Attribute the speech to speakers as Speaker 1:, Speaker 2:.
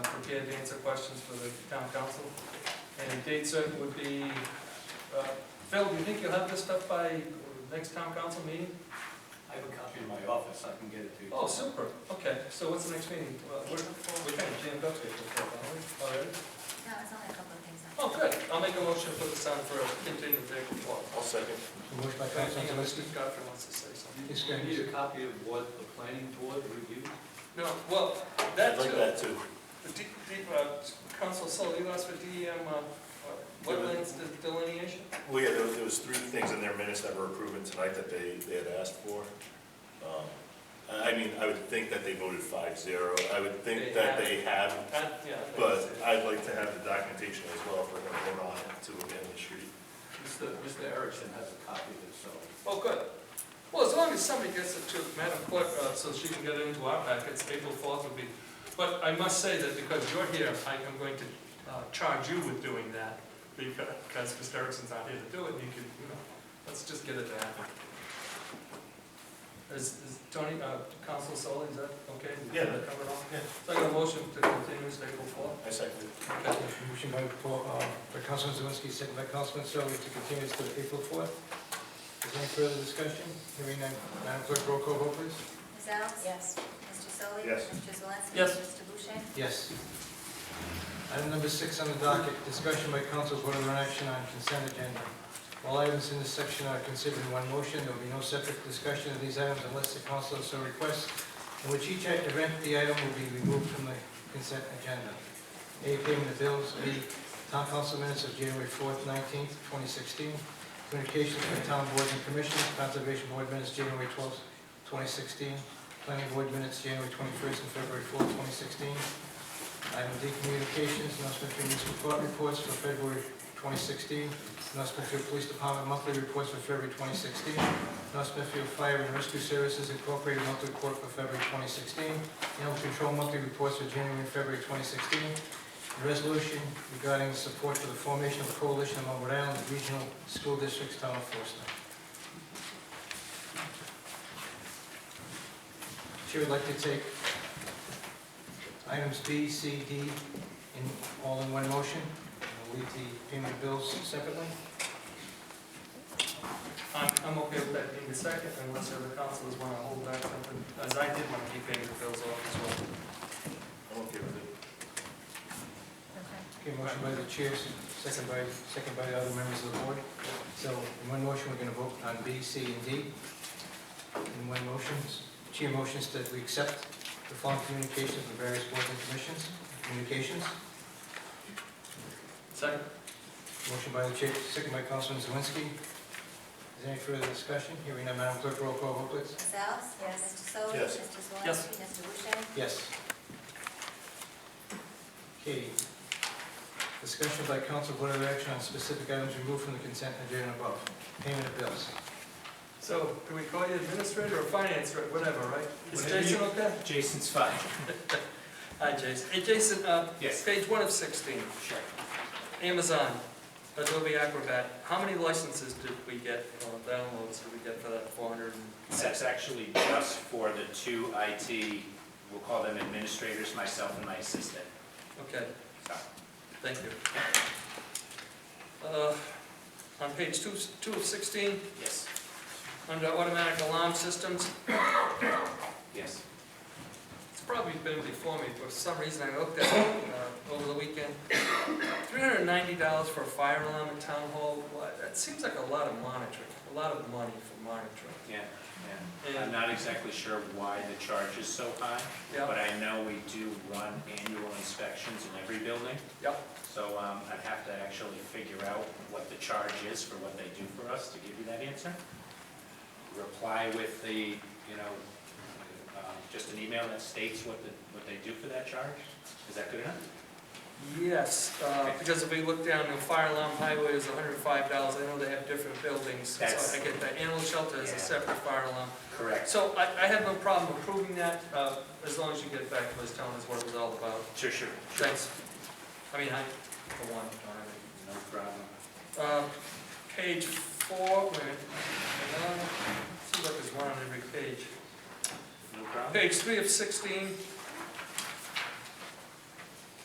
Speaker 1: prepared to answer questions for the town council. And date certain would be, uh, Phil, do you think you'll have this stuff by next town council meeting?
Speaker 2: I have a copy in my office, I can get it to you.
Speaker 1: Oh, super, okay, so what's the next meeting? Well, We're, we're kind of jammed up here for a while, aren't we? Alright.
Speaker 3: No, it's only a couple of things.
Speaker 1: Oh, good, I'll make a motion for the sign for a continued vehicle walk.
Speaker 4: I'll second.
Speaker 5: Motion by Counselor
Speaker 1: Hang on,
Speaker 5: Zawinski,
Speaker 1: Mr. Godfrey wants to say something.
Speaker 5: Yes,
Speaker 2: You
Speaker 5: go ahead.
Speaker 2: need a copy of what the planning board reviewed?
Speaker 1: No, well,
Speaker 4: I'd
Speaker 1: that
Speaker 4: like
Speaker 1: too,
Speaker 4: that too.
Speaker 1: the D, D, uh, Council Sully, you asked for DEM, uh, uh, wetlands delineation?
Speaker 4: Well, yeah, there was, there was three things in their minutes that were approved tonight that they, they had asked for. Um, I I mean, I would think that they voted five zero. I would think
Speaker 1: They
Speaker 4: that
Speaker 1: have.
Speaker 4: they have,
Speaker 1: Uh, yeah. I think
Speaker 4: but
Speaker 1: that's it.
Speaker 4: I'd like to have the documentation as well if we're gonna vote on it to amend the street.
Speaker 2: Mr. Mr. Erickson has a copy of it, so.
Speaker 1: Oh, good. Well, as long as somebody gets it to Madam Clerk, uh, so she can get it into our packets, April fourth would be. But I must say that because you're here, I am going to uh, charge you with doing that, because Mr. Erickson's not here to do it, you can, you know, let's just get it to happen. Is, is Tony, uh, Council Sully, is that okay?
Speaker 4: Yeah.
Speaker 1: Did that cover it all?
Speaker 4: Yeah.
Speaker 1: So I got a motion to continue this April fourth.
Speaker 4: I second.
Speaker 1: Okay.
Speaker 5: motion by, Paul- uh, by Counselor Zawinski, second by Councilman Sully to continue this to April fourth. Is there any further discussion? Hearing none, Madam Clerk, roll call vote, please.
Speaker 3: Ms. Alves?
Speaker 6: Yes.
Speaker 3: Mr. Solly?
Speaker 4: Yes.
Speaker 3: Mr. Zelinski?
Speaker 1: Yes.
Speaker 3: Mr. Boucher?
Speaker 5: Yes. Item number six on the docket, discussion by council vote on action on consent agenda. All items in this section are considered in one motion, there will be no separate discussion of these items unless the council so requests, in which each act- event, the item will be removed from the consent agenda. A, payment of bills, B, town council minutes of January fourth, nineteenth, twenty sixteen, communications from town boards and commissions, conservation board minutes January twelfth, twenty sixteen, planning board minutes January twenty-first and February fourth, twenty sixteen, Item D, communications, announcement to municipal court reports for February 2016, announcement to police department monthly reports for February 2016, announcement to fire and rescue services incorporated monthly report for February 2016, animal control monthly reports for January and February 2016, and resolution regarding support for the formation of a coalition among Rhode Island regional school districts, town of Forest. Chair would like to take items B, C, D, in, all in one motion. And We'll leave the payment of bills separately.
Speaker 1: I'm, I'm okay with that being the second, unless the other councilors want to hold back something, as I did want to keep paying the bills off as well.
Speaker 4: I'm okay with it.
Speaker 3: Okay.
Speaker 5: Okay, motion by the chair, second by, second by the other members of the board. So in one motion, we're gonna vote on B, C, and D. In one motion, chair motions that we accept the following communications from various boards and commissions, communications.
Speaker 1: Second?
Speaker 5: Motion by the chair, second by Councilman Zawinski. Is there any further discussion? Hearing none, Madam Clerk, roll call vote, please.
Speaker 3: Ms. Alves?
Speaker 6: Yes.
Speaker 3: Mr. Solly?
Speaker 4: Yes.
Speaker 3: Mr. Zelinski?
Speaker 1: Yes.
Speaker 3: Mr. Boucher?
Speaker 5: Yes. Okay. Discussion by council, vote of action on specific items removed from the consent agenda above. Payment of bills.
Speaker 1: So, can we call you administrator or finance, or whatever, right? Is
Speaker 2: Whatever you-
Speaker 1: Jason okay?
Speaker 2: Jason's fine.
Speaker 1: Hi, Jason. Hey, Jason, uh,
Speaker 2: Yes.
Speaker 1: page one of sixteen,
Speaker 2: Sure.
Speaker 1: Amazon, Adobe Acrobat, how many licenses did we get, or downloads did we get for that four hundred and six?
Speaker 7: That's actually just for the two IT, we'll call them administrators, myself and my assistant.
Speaker 1: Okay,
Speaker 7: So,
Speaker 1: thank you. Uh, on page two, two of sixteen,
Speaker 7: Yes,
Speaker 1: under automatic alarm systems,
Speaker 7: yes.
Speaker 1: It's probably been before me, but for some reason I looked at it uh, over the weekend. Three hundred and ninety dollars for a fire alarm at town hall, why- that seems like a lot of monitoring, a lot of money for monitoring.
Speaker 7: Yeah, yeah. I'm
Speaker 1: And,
Speaker 7: not exactly sure why the charge is so high,
Speaker 1: yeah,
Speaker 7: but I know we do run annual inspections in every building.
Speaker 1: Yep.
Speaker 7: So um, I'd have to actually figure out what the charge is for what they do for us to give you that answer. Reply with the, you know, um, just an email that states what the, what they do for that charge. Is that good enough?
Speaker 1: yes, uh, because if we look down, the fire alarm highway is hundred and five dollars, I know they have different buildings, so
Speaker 7: That's-
Speaker 1: I get that, animal shelter is
Speaker 7: Yeah.
Speaker 1: a separate fire alarm.
Speaker 7: Correct.
Speaker 1: So I, I have no problem approving that, uh, as long as you get back to us telling us what it was all about.
Speaker 7: Sure, sure. sure.
Speaker 1: Thanks. I mean, I, for one, don't have any
Speaker 7: No problem.
Speaker 1: Uh, Page four, wait, hang on, seems like there's one on every page.
Speaker 7: No problem?
Speaker 1: Page three of sixteen,